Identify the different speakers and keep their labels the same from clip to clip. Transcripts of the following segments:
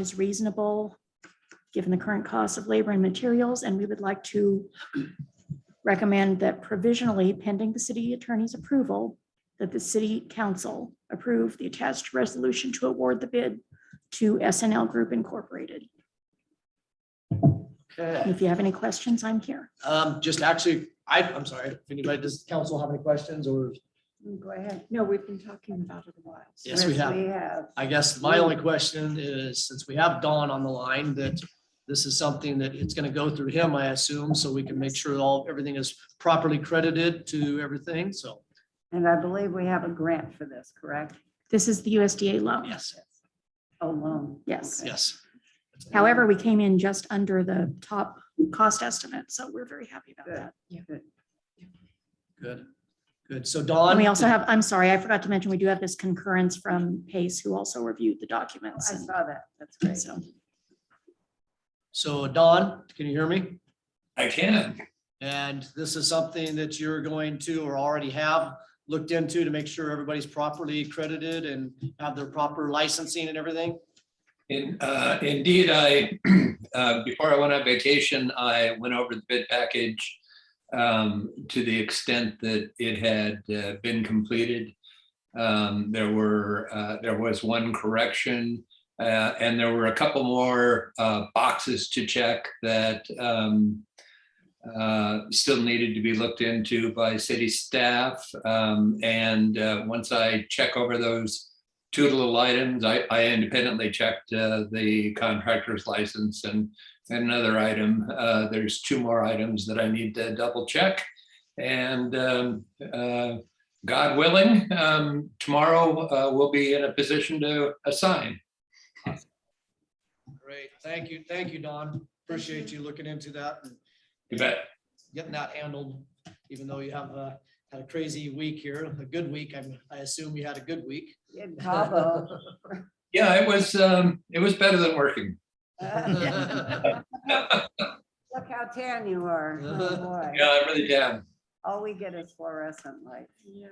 Speaker 1: is reasonable, given the current cost of labor and materials, and we would like to recommend that provisionally pending the city attorney's approval, that the city council approve the attached resolution to award the bid to SNL Group Incorporated.
Speaker 2: Okay,
Speaker 1: If you have any questions, I'm here.
Speaker 2: um, just actually, I, I'm sorry, if anybody, does council have any questions or,
Speaker 3: Mm, Go ahead. No, we've been talking about it a while. so-
Speaker 2: Yes, we have.
Speaker 3: We have.
Speaker 2: I guess my only question is, since we have Dawn on the line, that this is something that it's gonna go through him, I assume, so we can make sure all, everything is properly credited to everything, so,
Speaker 3: And I believe we have a grant for this, correct?
Speaker 1: This is the USDA loan.
Speaker 2: yes,
Speaker 3: Oh, loan.
Speaker 1: Yes.
Speaker 3: Okay.
Speaker 2: yes.
Speaker 1: However, we came in just under the top cost estimate, so we're very happy about that.
Speaker 2: Good, good. So Dawn.
Speaker 1: And we also have, I'm sorry, I forgot to mention, we do have this concurrence from Pace, who also reviewed the documents.
Speaker 3: I
Speaker 1: and
Speaker 3: saw that. That's great.
Speaker 1: So
Speaker 2: So Dawn, can you hear me?
Speaker 4: I can.
Speaker 2: And this is something that you're going to or already have looked into to make sure everybody's properly credited and have their proper licensing and everything?
Speaker 4: In- uh, Indeed, I, uh, before I went on vacation, I went over the bid package um, to the extent that it had uh, been completed. Um, There were, uh, there was one correction, uh, and there were a couple more uh, boxes to check that um, uh, still needed to be looked into by city staff. Um, And uh, once I check over those two little items. I, I independently checked uh, the contractor's license and and another item. Uh, There's two more items that I need to double check. And um, uh, God willing, um, tomorrow uh, we'll be in a position to assign.
Speaker 2: Great, thank you, thank you, Don. Appreciate you looking into that and
Speaker 4: You bet.
Speaker 2: getting that handled, even though you have uh, had a crazy week here, a good week. I'm- I assume you had a good week.
Speaker 3: In Cabo.
Speaker 4: Yeah, it was, um, it was better than working.
Speaker 3: Look
Speaker 2: Yeah.
Speaker 3: how tan you are. Oh, boy.
Speaker 4: Yeah, I really am.
Speaker 3: All we get is fluorescent light.
Speaker 4: Yeah.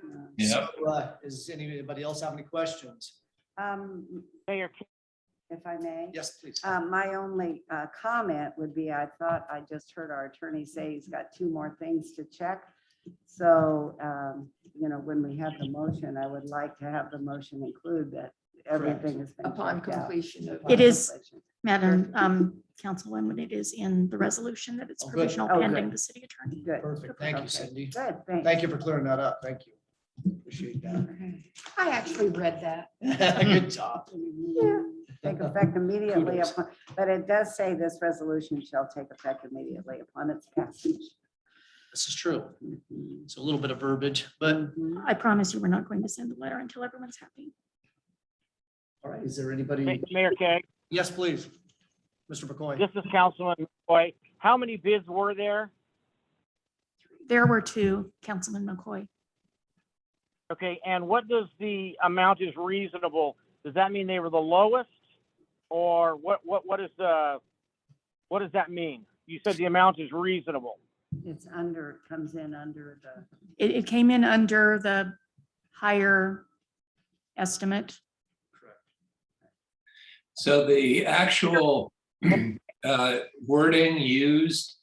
Speaker 2: So, uh, Does anybody else have any questions?
Speaker 3: Um,
Speaker 5: Mayor,
Speaker 3: if I may.
Speaker 2: Yes, please.
Speaker 3: Uh, my only, uh, comment would be, I thought I just heard our attorney say he's got two more things to check. So, um, you know, when we have the motion, I would like to have the motion include that everything has been.
Speaker 6: Upon
Speaker 3: checked out.
Speaker 6: completion of.
Speaker 1: It is-
Speaker 3: Completion.
Speaker 1: Madam um, Councilwoman, it is in the resolution that it's
Speaker 2: Oh, good.
Speaker 1: provisional
Speaker 3: Oh, good.
Speaker 1: pending the city attorney.
Speaker 3: Good,
Speaker 2: Perfect, thank you, Cindy.
Speaker 3: good, thanks.
Speaker 2: Thank you for clearing that up. Thank you. Appreciate that.
Speaker 6: I actually read that.
Speaker 2: Good job.
Speaker 3: Yeah, Take effect immediately,
Speaker 2: Kudos.
Speaker 3: upon but it does say this resolution shall take effect immediately upon its passage.
Speaker 2: This is true. It's a little bit of verbiage, but
Speaker 3: Mhm.
Speaker 1: I promise you, we're not going to send the letter until everyone's happy.
Speaker 2: all right, is there anybody?
Speaker 5: Mayor Keg,
Speaker 2: Yes, please. Mr. McCoy.
Speaker 5: this is Councilman McCoy. How many bids were there?
Speaker 1: There were two, Councilman McCoy.
Speaker 5: Okay, and what does the amount is reasonable? Does that mean they were the lowest? Or what, what, what is the, what does that mean? You said the amount is reasonable.
Speaker 3: It's under, it comes in under the.
Speaker 1: It, it came in under the higher estimate.
Speaker 4: So the actual uh, wording used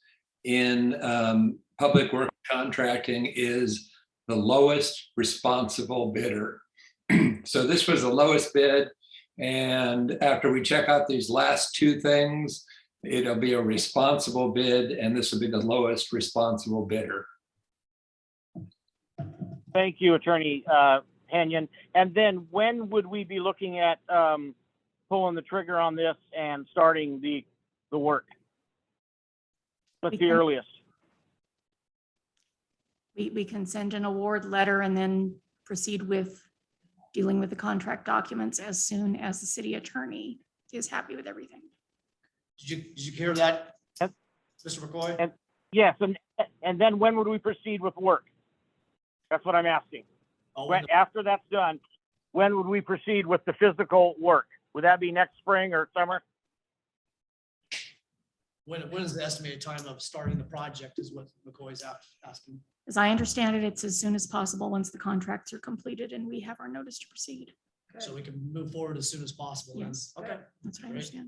Speaker 4: in um, public work contracting is the lowest responsible bidder. So this was the lowest bid. And after we check out these last two things, it'll be a responsible bid and this will be the lowest responsible bidder.
Speaker 5: Thank you, Attorney, uh, Henyon. And then when would we be looking at, um, pulling the trigger on this and starting the, the work? What's the earliest?
Speaker 1: We, we can send an award letter and then proceed with dealing with the contract documents as soon as the city attorney is happy with everything.
Speaker 2: Did you, did you hear that?
Speaker 5: Yep.
Speaker 2: Mr. McCoy?
Speaker 5: Yep. Yes, and, and then when would we proceed with work? That's what I'm asking.
Speaker 2: Oh,
Speaker 5: When, after that's done, when would we proceed with the physical work? Would that be next spring or summer?
Speaker 2: When, when is the estimated time of starting the project is what McCoy's a- asking.
Speaker 1: As I understand it, it's as soon as possible, once the contracts are completed and we have our notice to proceed.
Speaker 2: So we can move forward as soon as possible. then.
Speaker 1: Yes.
Speaker 2: Okay.
Speaker 1: That's what I
Speaker 2: Great.
Speaker 1: understand.